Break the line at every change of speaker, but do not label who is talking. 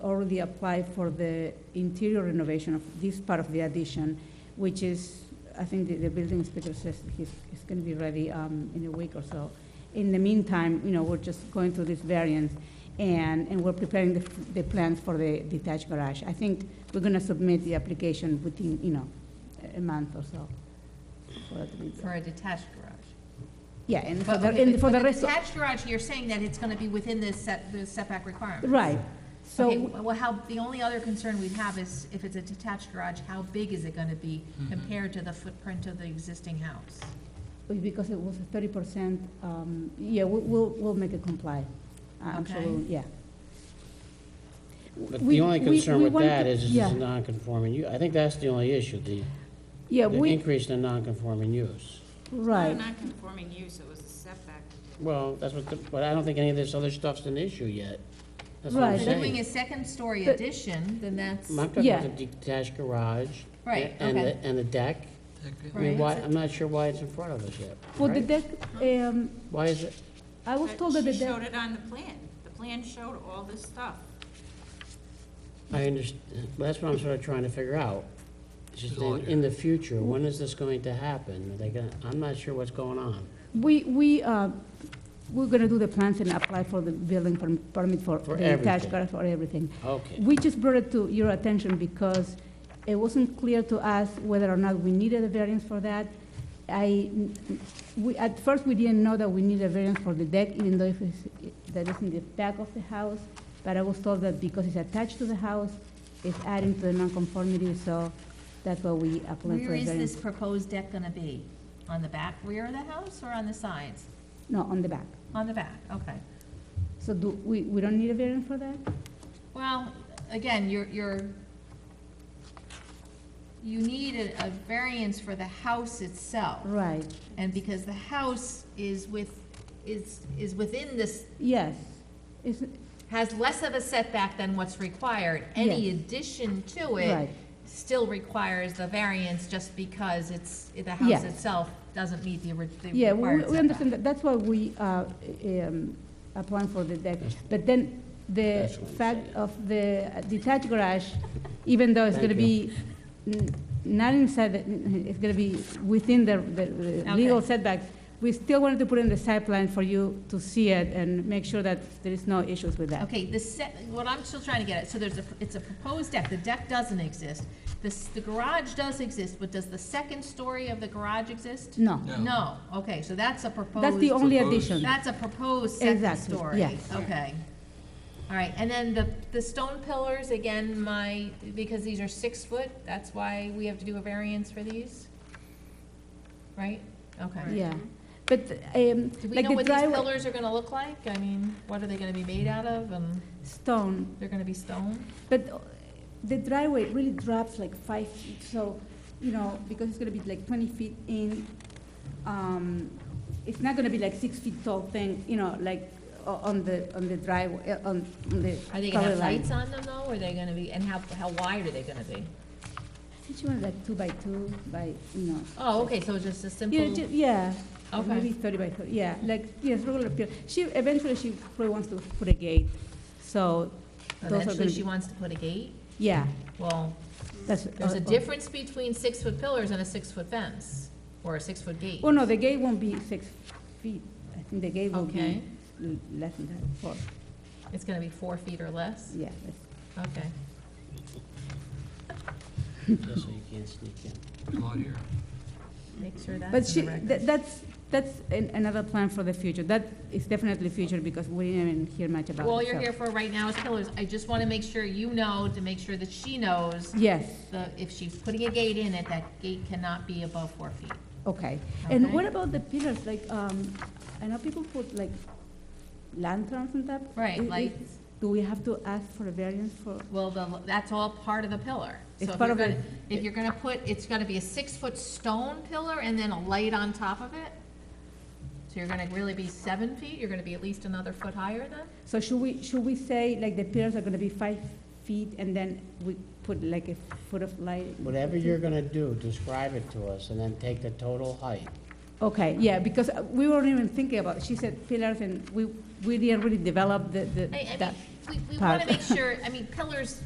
already applied for the interior renovation of this part of the addition, which is, I think the, the building inspector says he's, he's gonna be ready, um, in a week or so. In the meantime, you know, we're just going through this variance, and, and we're preparing the, f- the plans for the detached garage. I think we're gonna submit the application within, you know, a- a month or so. for it to be done.
for a detached garage.
Yeah, and for
But
the,
okay,
and
but-
for
but
the rest, of-
Detached garage, you're saying that it's gonna be within the set, the setback requirement.
right, so,
Okay, well, how, the only other concern we have is if it's a detached garage, how big is it gonna be compared to the footprint of the existing house?
because it was thirty percent, um, yeah, we- we'll, we'll make it comply. Uh, I'm sure,
Okay.
we'll- yeah.
But
We-
the only
we-
concern
we
with
want
that
to-
is it's
yeah.
a non-conforming, u- I think that's the only issue, the
Yeah,
the
we,
increase in the non-conforming use.
right,
Not conforming use, it was a setback.
Well, that's what, the- but I don't think any of this other stuff's an issue yet. That's what
Right.
I'm
If they're doing a
saying.
second-story
But-
addition, then that's,
I'm talking
Yeah.
about the detached garage.
Right,
And
okay.
the, and the deck. I mean, why,
right?
I'm not sure why it's in front of us yet.
for the
right?
deck, um,
Why is it,
I was told that the
She showed
deck,
it on the plan. The plan showed all this stuff.
I understand, that's what I'm sort of trying to figure out. It's just
It's all
in, in the future, when is this going to happen? Are they gonna, I'm not sure what's going on.
we, we, uh, we're gonna do the plans and apply for the building perm- permit for
For
the detached
everything.
garage for everything.
Okay,
We just brought it to your attention because it wasn't clear to us whether or not we needed a variance for that. I, we, at first, we didn't know that we needed a variance for the deck, even though if it's, that is in the back of the house, but I was told that because it's attached to the house, it's adding to the nonconformity, so that's why we applied for
Where
a
is this
variance.
proposed deck gonna be? On the back rear of the house or on the sides?
No, on the back.
On the back, okay.
So do, we, we don't need a variance for that?
Well, again, you're, you're, you need a, a variance for the house itself.
Right,
And because the house is with, is, is within this,
yes. It's,
has less of a setback than what's required, any
Yes.
addition to
Right.
it still requires the variance just because it's, the
Yes.
house itself doesn't meet the ori- the required
Yeah, we- we we
setback.
understand that, that's why we are um, applying for the deck. But then, the
That's what I'm
fact
saying.
of the detached garage, even though it's going to be
Thank
n- not inside, the- it's going to be within the the- the legal
Okay.
setbacks, we still wanted to put in the site plan for you to see it and make sure that there is no issues with that.
Okay, the set, what I'm still trying to get at, so there's a, it's a proposed deck, the deck doesn't exist. The, s- the garage does exist, but does the second story of the garage exist?
No,
No.
No, okay, so that's a proposed.
that's the only
Proposed.
addition.
That's a proposed second
Exactly,
story.
yes.
Okay. All right, and then the, the stone pillars, again, my, because these are six foot, that's why we have to do a variance for these? Right? Okay.
Yeah, but um,
Do we
like
know
the
what these
driveway,
pillars are gonna look like? I mean, what are they gonna be made out of, and
stone,
they're gonna be stone?
But uh, the driveway really drops like five feet, so, you know, because it's gonna be like twenty feet in, um, it's not gonna be like six feet tall thing, you know, like o- on the, on the driveway, uh, on on the.
Are they gonna have
color line.
lights on them though, or are they gonna be, and how, how wide are they gonna be?
Each one like two by two by, you know.
Oh, okay, so it's just a
Yeah,
simple,
ju- yeah,
Okay.
maybe thirty by thirty, yeah, like, yes, regular, pier- she, eventually she probably wants to put a gate, so those are
eventually
gonna
she
be,
wants to put a gate?
yeah,
Well,
that's.
there's
uh,
a
uh,
difference between six-foot pillars and a six-foot fence, or a six-foot gate.
Well, Oh, no, the gate won't be six feet. I think the gate will be
Okay.
l- less than that, four,
It's gonna be four feet or less?
yeah. that's-
Okay.
just so you can't sneak in.
It's all here.
Make sure
But
that's
she,
in the record.
tha- that's, that's an- another plan for the future. That is definitely future because we didn't even hear much about it.
All you're
so-
here for right now is pillars. I just wanna make sure you know, to make sure that she knows,
Yes,
the if she's putting a gate in it, that gate cannot be above four feet.
okay. And
Okay.
what about the pillars? Like, um, I know people put like lanterns on top.
Right,
I- i-
lights.
Do we have to ask for a variance for,
Well, the, that's all part of the pillar. So
It's
if
part
you're
of it.
gonna- If you're gonna put, it's gonna be a six-foot stone pillar and then a light on top of it? So you're gonna really be seven feet, you're gonna be at least another foot higher then?
so should we, should we say like the pillars are gonna be five feet and then we put like a foot of light?
Whatever you're gonna do, describe it to us, and then take the total height.
Okay, yeah, because uh, we weren't even thinking about, she said pillars, and we, we didn't really develop the, the,
I, I mean,
that.
we, we
Part.
wanna make sure, I mean, pillars